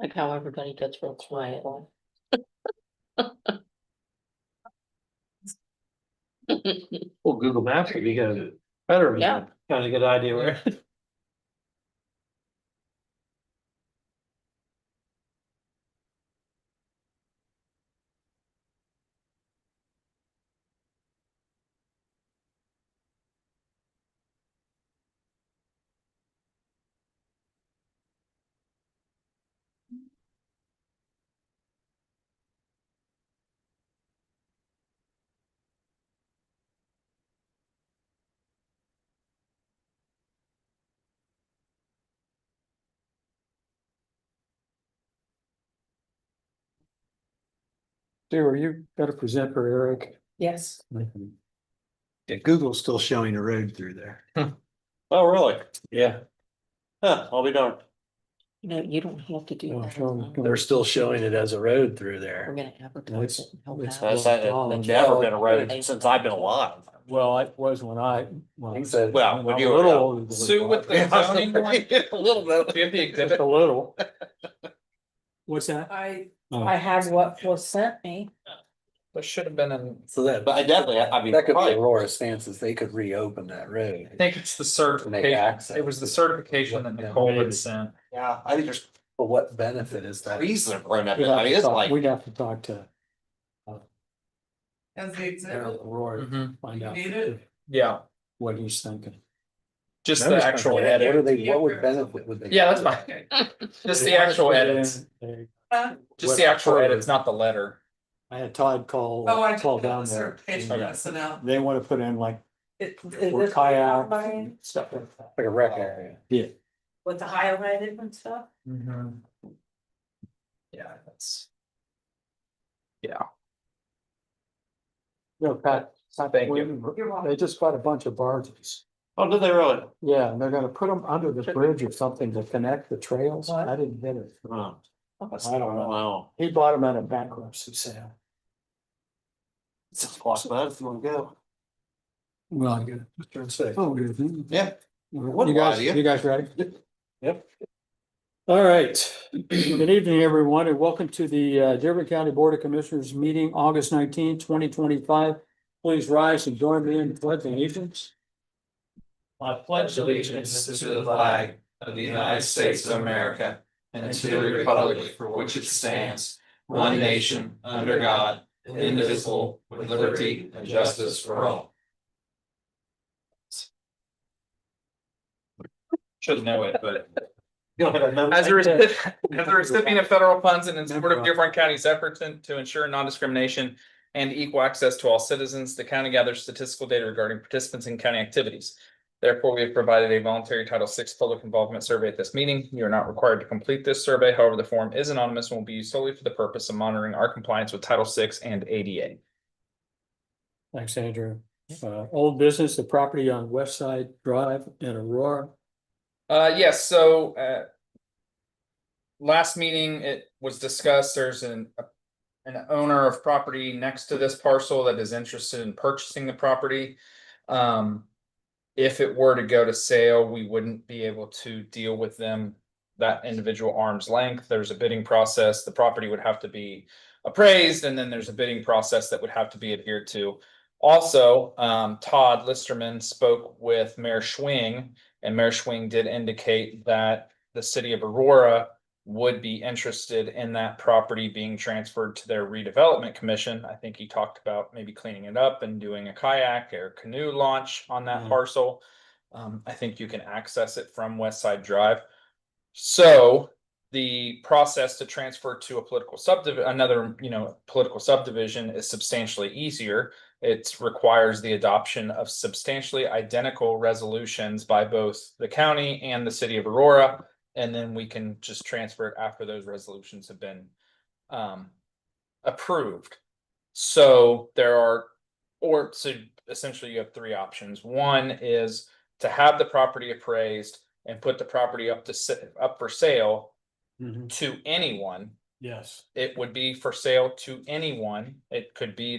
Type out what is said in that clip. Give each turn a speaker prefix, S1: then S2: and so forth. S1: Like how everybody gets real quiet.
S2: Well, Google Maps would be good, better.
S1: Yeah.
S2: Kind of a good idea where.
S3: Sarah, you gotta present for Eric.
S1: Yes.
S4: Yeah, Google's still showing a road through there.
S2: Oh, really? Yeah. Huh, I'll be darned.
S1: No, you don't have to do
S3: Oh,
S1: that.
S3: sure.
S1: We're
S4: They're still showing it as a road through there.
S1: gonna advertise it. and help
S3: it's-
S1: out.
S2: That's,
S3: Oh,
S2: that's never uh, been a road since I've been alive.
S3: Well, it was when I, when I said.
S2: Well, when
S3: I'm
S2: you
S3: a
S2: were
S3: little
S2: young.
S3: older than
S5: Sue with the
S3: that.
S5: zoning board,
S2: A little bit.
S5: do you have the
S3: Just
S5: exhibit?
S3: a little. What's that?
S1: I,
S3: Oh.
S1: I have what was sent me.
S5: There should have been an,
S4: So that.
S2: But I definitely, I mean,
S4: That could be
S2: probably-
S4: Aurora stances. They could reopen that road.
S5: I think it's the
S4: Make
S5: certification,
S4: access.
S5: it was the certification that Nicole had sent.
S2: yeah, I think there's
S4: But what benefit is that?
S2: trees that have grown up.
S3: We'd have
S2: I mean,
S3: to
S2: it's
S3: talk-
S2: like,
S3: We'd have to talk to
S6: As the exhibit,
S3: Eric Roy,
S2: Mm-hmm.
S3: find out
S6: Need it?
S5: Yeah,
S3: what he's thinking.
S5: just
S4: No,
S5: the
S4: it's not
S5: actual
S4: gonna happen. What
S5: edit,
S4: are they, what would benefit would they?
S5: yeah, that's fine, just the actual edits,
S6: Huh?
S5: just the actual edits, not the letter.
S3: I had Todd call,
S6: oh, I
S3: call
S6: took
S3: down
S6: the
S3: there. uh,
S6: certification
S5: Okay.
S6: personnel.
S3: They wanna put in like
S6: It- it-
S3: for
S6: this-
S3: kayak
S6: mine?
S3: stuff like that.
S4: Like a rec area.
S6: With the highlighted and stuff?
S5: Yeah, that's,
S3: No, Pat. Pat
S5: Thank you.
S3: William, They just bought a bunch of barges.
S2: oh, did they really?
S3: Yeah, and they're gonna put them under the bridge or something to connect the trails. I didn't get it.
S2: Huh. That's-
S3: I don't know.
S2: Wow.
S3: He bought them at a bankruptcy sale.
S2: It's a block, but if you wanna go.
S3: Well, I get it. Oh, good. You
S2: Yeah. What a
S3: guys,
S2: idea.
S3: you guys ready?
S2: Yep.
S3: All right. Good evening, everyone, and welcome to the uh, Dearborn County Board of Commissioners meeting, August nineteenth, twenty twenty-five. Please rise and join me in the pledge of allegiance.
S5: I
S7: pledge allegiance to the flag of the United States of America and to the republic for which it stands, one nation, under God, indivisible, with liberty and justice for all.
S5: Should know it, but.
S2: You don't have a memo?
S5: As a recipient, as a recipient of federal funds and in support of Dearborn County's efforts in- to ensure non-discrimination and equal access to all citizens, the county gathers statistical data regarding participants in county activities. Therefore, we have provided a voluntary Title VI public involvement survey at this meeting. You are not required to complete this survey. However, the form is anonymous and will be used solely for the purpose of monitoring our compliance with Title VI and ADA.
S3: Thanks, Andrew. Uh, old business, the property on West Side Drive in Aurora.
S5: Uh, yes, so, uh. Last meeting, it was discussed, there's an. An owner of property next to this parcel that is interested in purchasing the property. Um. If it were to go to sale, we wouldn't be able to deal with them. That individual arm's length, there's a bidding process, the property would have to be appraised, and then there's a bidding process that would have to be adhered to. Also, um, Todd Listerman spoke with Mayor Schwing. And Mayor Schwing did indicate that the city of Aurora would be interested in that property being transferred to their redevelopment commission. I think he talked about maybe cleaning it up and doing a kayak or canoe launch on that
S3: Mhm.
S5: parcel. Um, I think you can access it from West Side Drive. So the process to transfer to a political subdivision, another, you know, political subdivision is substantially easier. It requires the adoption of substantially identical resolutions by both the county and the city of Aurora. And then we can just transfer it after those resolutions have been um approved. So there are, or so essentially you have three options. One is to have the property appraised and put the property up to s- up for sale
S2: Mm-hmm.
S5: to anyone
S3: Yes.
S5: it would be for sale to anyone. It could be